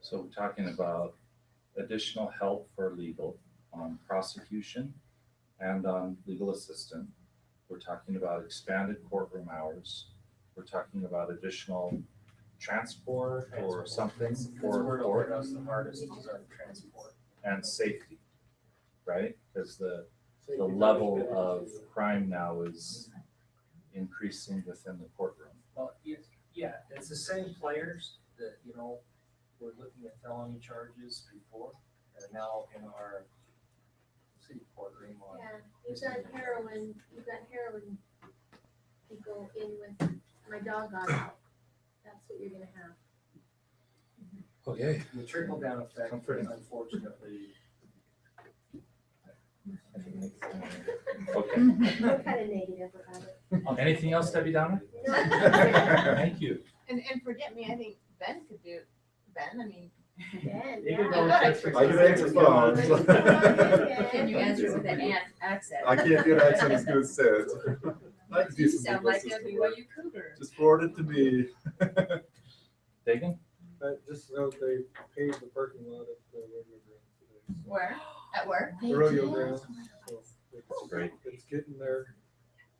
So we're talking about additional help for legal on prosecution and on legal assistant. We're talking about expanded courtroom hours. We're talking about additional transport or Transport. something That's that's for where it hit court us the hardest is our transport. and safety, right? Because the, Safety the always level been an of issue. crime now is increasing within the courtroom. Well, yes, yeah, it's the same players that, you know, were looking at felony charges before are now in our city courtroom on. Yeah, you've got heroin, you've got heroin people in with, my dog got out. That's what you're gonna have. Okay, The trickle down effect Comforting. is unfortunately, Okay, We're kinda negative about it. anything else, Debbie Downer? Thank you. And, and forget me, I think Ben could do, Ben, I mean. Ben, You can yeah. go I answer I can answer phones. Can you answer with an ant accent? I can't do an accent as good as Seth. I can do You some sound Midwest like a system work. BYU Cougar. Just forward it to me. Dagan? but just so they paved the parking lot at the rodeo ground today. so- Where? At work? The rodeo ground. so it's- Oh, Great. It's getting there.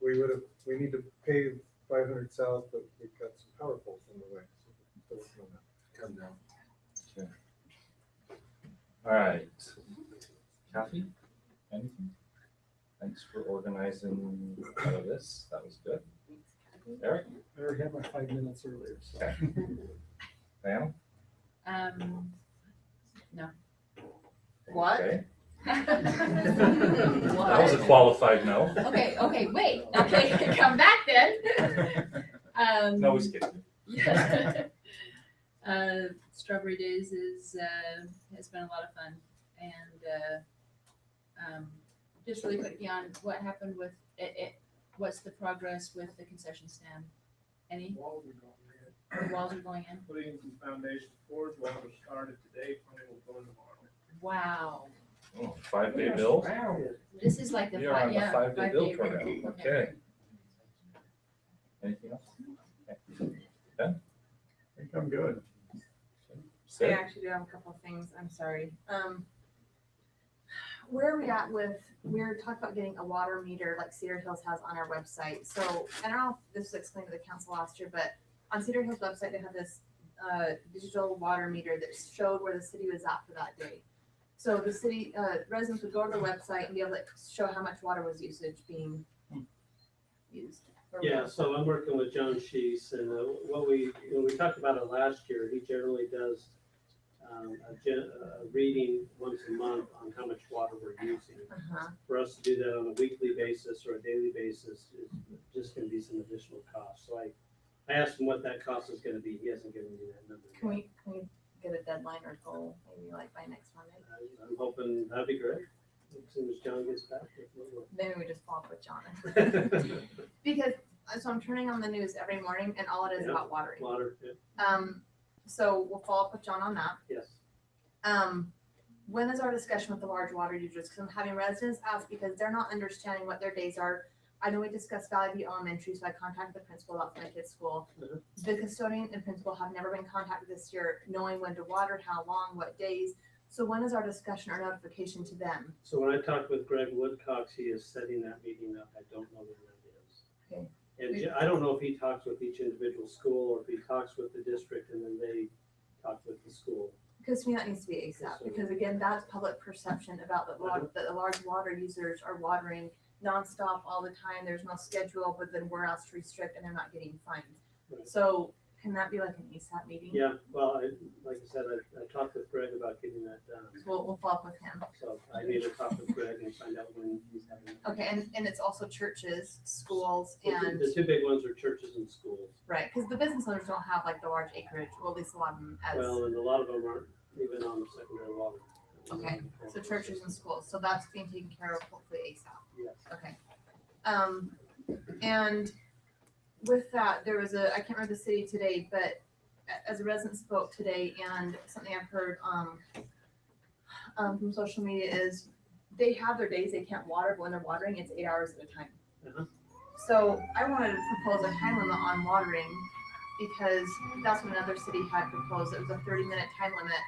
We would have, we need to pave five hundred south, but we've got some power poles in the way. so it's gonna Come down. All right. Kathy, anything? Thanks for organizing all of this. That was good. Eric, I already had my five minutes earlier, so. Pam? Um, no. What? Okay. That was a What? qualified no. Okay, okay, wait, okay, come back then. Um. No, we skipped it. Yeah. uh, Strawberry Days is uh, has been a lot of fun, and uh, um, just really quickly on what happened with it, it. What's the progress with the concession stand? Any Walls are going in, the walls are going in? putting in some foundation floors, walls are started today, planning will go in tomorrow. Wow, Oh, Five day bill? this is like the We are on five, the yeah, five day bill five-day program. rate. Okay. Anything else? Okay. I think I'm good. I Sid? actually do have a couple of things, I'm sorry. Um, where are we at with, we were talking about getting a water meter like Cedar Hills has on our website. So, I don't know if this was explained to the council last year, but on Cedar Hills website, they have this, uh, digital water meter that showed where the city was at for that day. So the city, uh, residents would go to the website and be able to show how much water was usage being used. or Yeah, so I'm working with John Shees, and uh, what we, when we talked about it last year, he generally does um, a gen- a reading once a month on how much water we're using. Uh-huh. For us to do that on a weekly basis or a daily basis is just gonna be some additional cost. So I, I asked him what that cost is gonna be, he hasn't given me that number. Can yet. we, can we get a deadline or goal, maybe like by next Monday? I- Uh, I'm hoping, that'd be great, as soon as John gets back. if we will. Maybe we just follow up with John. Because, uh, so I'm turning on the news every morning and all it is Yeah. about watering. Water, yeah, Um, so we'll follow up with John on that. yes. Um, when is our discussion with the large water users? Cause I'm having residents ask because they're not understanding what their days are. I know we discussed Valley View Elementary, so I contacted the principal about my kid's school. Mhm. The custodian and principal have never been contacted this year, knowing when to water, how long, what days. So when is our discussion or notification to them? So when I talked with Greg Woodcox, he is setting that meeting up. I don't know when that is. Okay. And ju- I don't know if he talks with each individual school or if he talks with the district and then they talk with the school. Because to me, that needs to be ASAP, because again, that's public perception about the Mhm. water, that the large water users are watering nonstop all the time, there's no schedule, but then we're asked to restrict and they're not getting fined. Right. So can that be like an ASAP meeting? Yeah, well, I, like I said, I, I talked with Greg about getting that done. We'll, we'll follow up with him. So I need to talk with Greg and find out when he's having. that. Okay, and, and it's also churches, schools, The two- and, The two big ones are churches and schools. right, because the business owners don't have like the large acreage, or at least a lot of them as, Well, and a lot of them aren't even on secondary water. Okay, so churches and schools, so that's being taken care of hopefully ASAP. Yes. Okay. Um, and with that, there was a, I can't remember the city today, but a- as a resident spoke today and something I've heard, um, um, from social media is they have their days they can't water, but when they're watering, it's eight hours at a Uh-huh. time. So I wanted to propose a time limit on watering because that's what another city had proposed. It was a thirty minute time limit